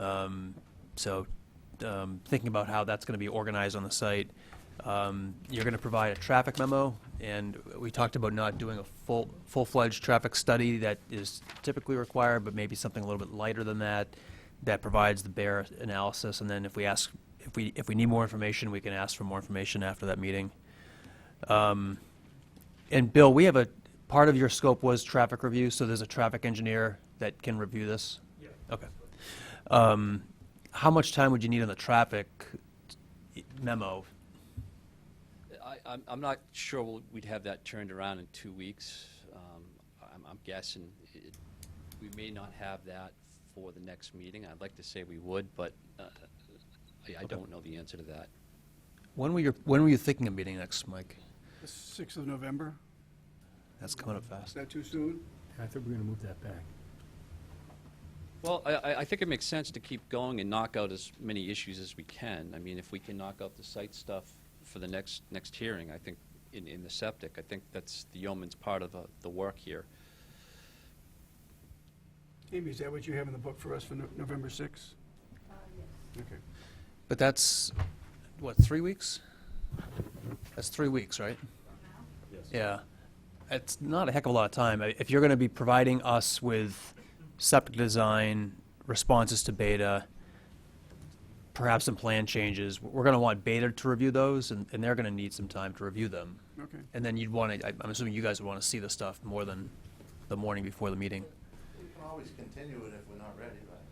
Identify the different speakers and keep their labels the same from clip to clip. Speaker 1: Um, So um, thinking about how that's going to be organized on the site. Um, You're going to provide a traffic memo, and we talked about not doing a full, full-fledged traffic study that is typically required, but maybe something a little bit lighter than that, that provides the bare analysis, and then if we ask, if we, if we need more information, we can ask for more information after that meeting. Um, And Bill, we have a, part of your scope was traffic review, so there's a traffic engineer that can review this? Yeah. Okay. Um, How much time would you need on the traffic memo?
Speaker 2: I, I'm, I'm not sure we'll- we'd have that turned around in two weeks. Um, I'm, I'm guessing it, we may not have that for the next meeting. I'd like to say we would, but uh, I, I don't know the answer to that.
Speaker 1: When were you, when were you thinking of meeting next, Mike?
Speaker 3: The 6th of November,
Speaker 1: That's coming up
Speaker 3: is
Speaker 1: fast.
Speaker 3: that too soon?
Speaker 4: I thought we were going to move that back.
Speaker 2: Well, I- I, I think it makes sense to keep going and knock out as many issues as we can. I mean, if we can knock out the site stuff for the next, next hearing, I think, in, in the septic, I think that's the yeoman's part of uh, the work here.
Speaker 3: Amy, is that what you have in the book for us for No- November 6th? Okay.
Speaker 1: But that's, what, three weeks? That's three weeks, right? Yeah. It's not a heck of a lot of time. I- If you're going to be providing us with septic design, responses to beta, perhaps some plan changes, we're going to want beta to review those, and, and they're going to need some time to review them.
Speaker 3: Okay.
Speaker 1: And then you'd want to, I'm assuming you guys would want to see the stuff more than the morning before the meeting.
Speaker 5: We can always continue it if we're not ready, right?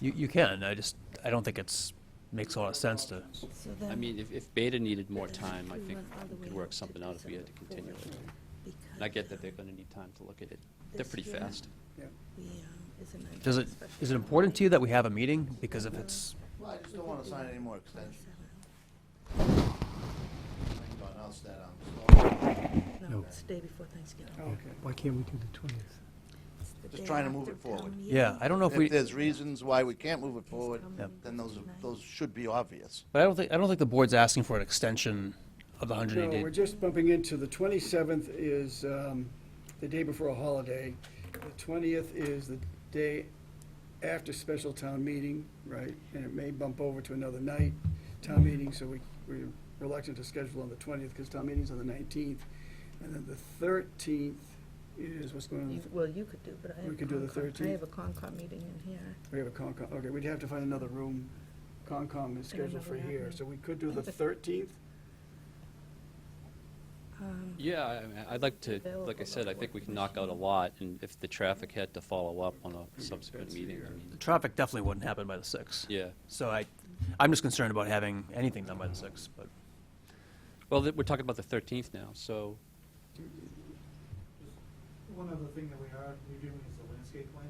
Speaker 1: You, you can, I just, I don't think it's, makes a lot of sense to,
Speaker 6: So
Speaker 2: I
Speaker 6: then-
Speaker 2: mean, if, if Beta needed more time, I
Speaker 6: We
Speaker 2: think
Speaker 6: went all the
Speaker 2: we could
Speaker 6: way
Speaker 2: work
Speaker 6: to
Speaker 2: something out if we had to
Speaker 6: December
Speaker 2: continue it.
Speaker 6: fourth,
Speaker 2: And I
Speaker 6: because
Speaker 2: get that they're going to need time to look at it. They're
Speaker 6: This
Speaker 2: pretty
Speaker 6: year.
Speaker 2: fast.
Speaker 3: Yeah.
Speaker 6: we, um, it's an
Speaker 1: does it,
Speaker 6: special
Speaker 1: is it important to you that we have a meeting? Because if it's,
Speaker 5: Well, I just don't wanna sign any more extensions. Thank God, I'll stay on.
Speaker 6: No,
Speaker 4: No.
Speaker 6: it's the day before Thanksgiving.
Speaker 3: Oh, Okay.
Speaker 4: Why can't we do the 20th?
Speaker 6: It's the
Speaker 5: Just
Speaker 6: day
Speaker 5: trying to move
Speaker 6: after
Speaker 5: it forward.
Speaker 6: town
Speaker 1: yeah,
Speaker 6: meeting.
Speaker 1: I don't know if we,
Speaker 5: If there's reasons why we can't move it forward,
Speaker 6: Yep.
Speaker 5: then those, those should be obvious.
Speaker 1: but I don't think, I don't think the board's asking for an extension of the hundred
Speaker 3: No,
Speaker 1: and
Speaker 3: we're
Speaker 1: eighty.
Speaker 3: just bumping into, the 27th is um, the day before a holiday. The 20th is the day after special town meeting, right? And it may bump over to another night, town meeting, so we, we're reluctant to schedule on the 20th because town meeting's on the 19th. And then the 13th is what's going on,
Speaker 6: You-
Speaker 3: the-
Speaker 6: Well, you could do, but I have.
Speaker 3: We could do the
Speaker 6: Concom.
Speaker 3: 13th.
Speaker 6: I have a Concom meeting in here.
Speaker 3: we have a Concom, okay, we'd have to find another room. Concom is
Speaker 6: I don't know
Speaker 3: scheduled for
Speaker 6: what
Speaker 3: here,
Speaker 6: happened.
Speaker 3: so we could do the 13th.
Speaker 6: Um,
Speaker 2: Yeah, I mean, I'd like to, like I said, I think we can knock out a lot, and if the traffic had to follow up on a subsequent meeting, I mean,
Speaker 1: Traffic definitely wouldn't happen by the sixth.
Speaker 2: yeah.
Speaker 1: So I, I'm just concerned about having anything done by the sixth, but,
Speaker 2: Well, th- we're talking about the 13th now, so,
Speaker 7: One other thing that we are reviewing is the landscape plan.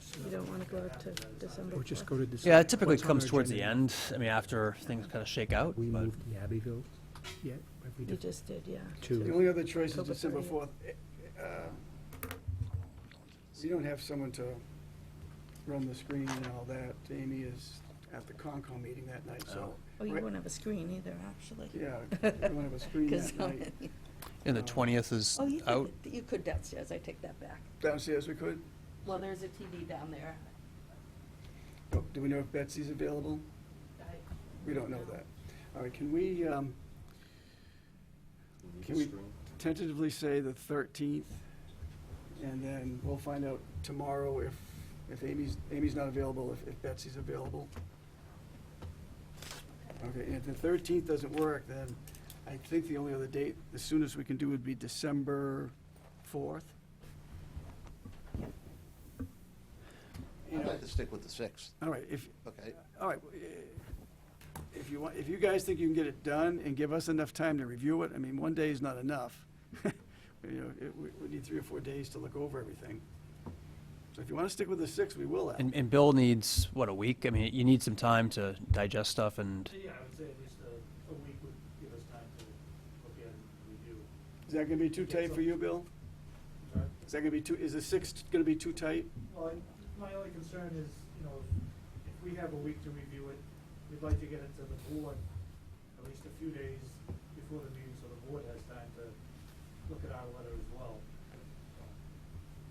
Speaker 7: So
Speaker 6: You don't wanna go out to December.
Speaker 4: Or just go to December?
Speaker 1: yeah, it typically
Speaker 4: What's on
Speaker 1: comes
Speaker 4: our
Speaker 1: towards the
Speaker 4: agenda?
Speaker 1: end, I mean, after things kind of shake out,
Speaker 4: We
Speaker 1: but,
Speaker 4: moved the Abbeville yet? Have we
Speaker 6: You
Speaker 4: done-
Speaker 6: just did, yeah.
Speaker 4: Two.
Speaker 3: The only other choice is
Speaker 6: October
Speaker 3: December
Speaker 6: 30th.
Speaker 3: fourth. You don't have someone to run the screen and all that. Amy is at the Concom meeting that night, so,
Speaker 6: Oh, you
Speaker 3: Right.
Speaker 6: won't have a screen either, actually.
Speaker 3: yeah, we won't have a screen
Speaker 6: 'Cause
Speaker 3: that
Speaker 6: how
Speaker 3: night.
Speaker 6: many-
Speaker 1: and the twentieth is
Speaker 6: Oh, you
Speaker 1: out.
Speaker 6: could, you could downstairs, I take that back.
Speaker 3: Downstairs, we could.
Speaker 6: Well, there's a TV down there.
Speaker 3: Oh, Do we know if Betsy's available? We don't know that. All right, can we, um, can we tentatively say the thirteenth? And then we'll find out tomorrow if, if Amy's, Amy's not available, if, if Betsy's available. Okay, and if the thirteenth doesn't work, then I think the only other date, the soonest we can do would be December fourth.
Speaker 5: I'd like to stick with the sixth,
Speaker 3: All right, if,
Speaker 5: okay?
Speaker 3: all right, eh, if you want, if you guys think you can get it done and give us enough time to review it, I mean, one day is not enough. You know, it- we, we need three or four days to look over everything. So if you want to stick with the six, we will. Al.
Speaker 1: And, and Bill needs, what, a week? I mean, you need some time to digest stuff and,
Speaker 7: Yeah, I would say at least a, a week would give us time to look at and review.
Speaker 3: Is that going to be too tight for you, Bill?
Speaker 7: Sorry?
Speaker 3: Is that going to be too, is the six going to be too tight?
Speaker 7: Well, I- my only concern is, you know, if we have a week to review it, we'd like to get it to the board at least a few days before the meeting, so the board has time to look at our letter as well.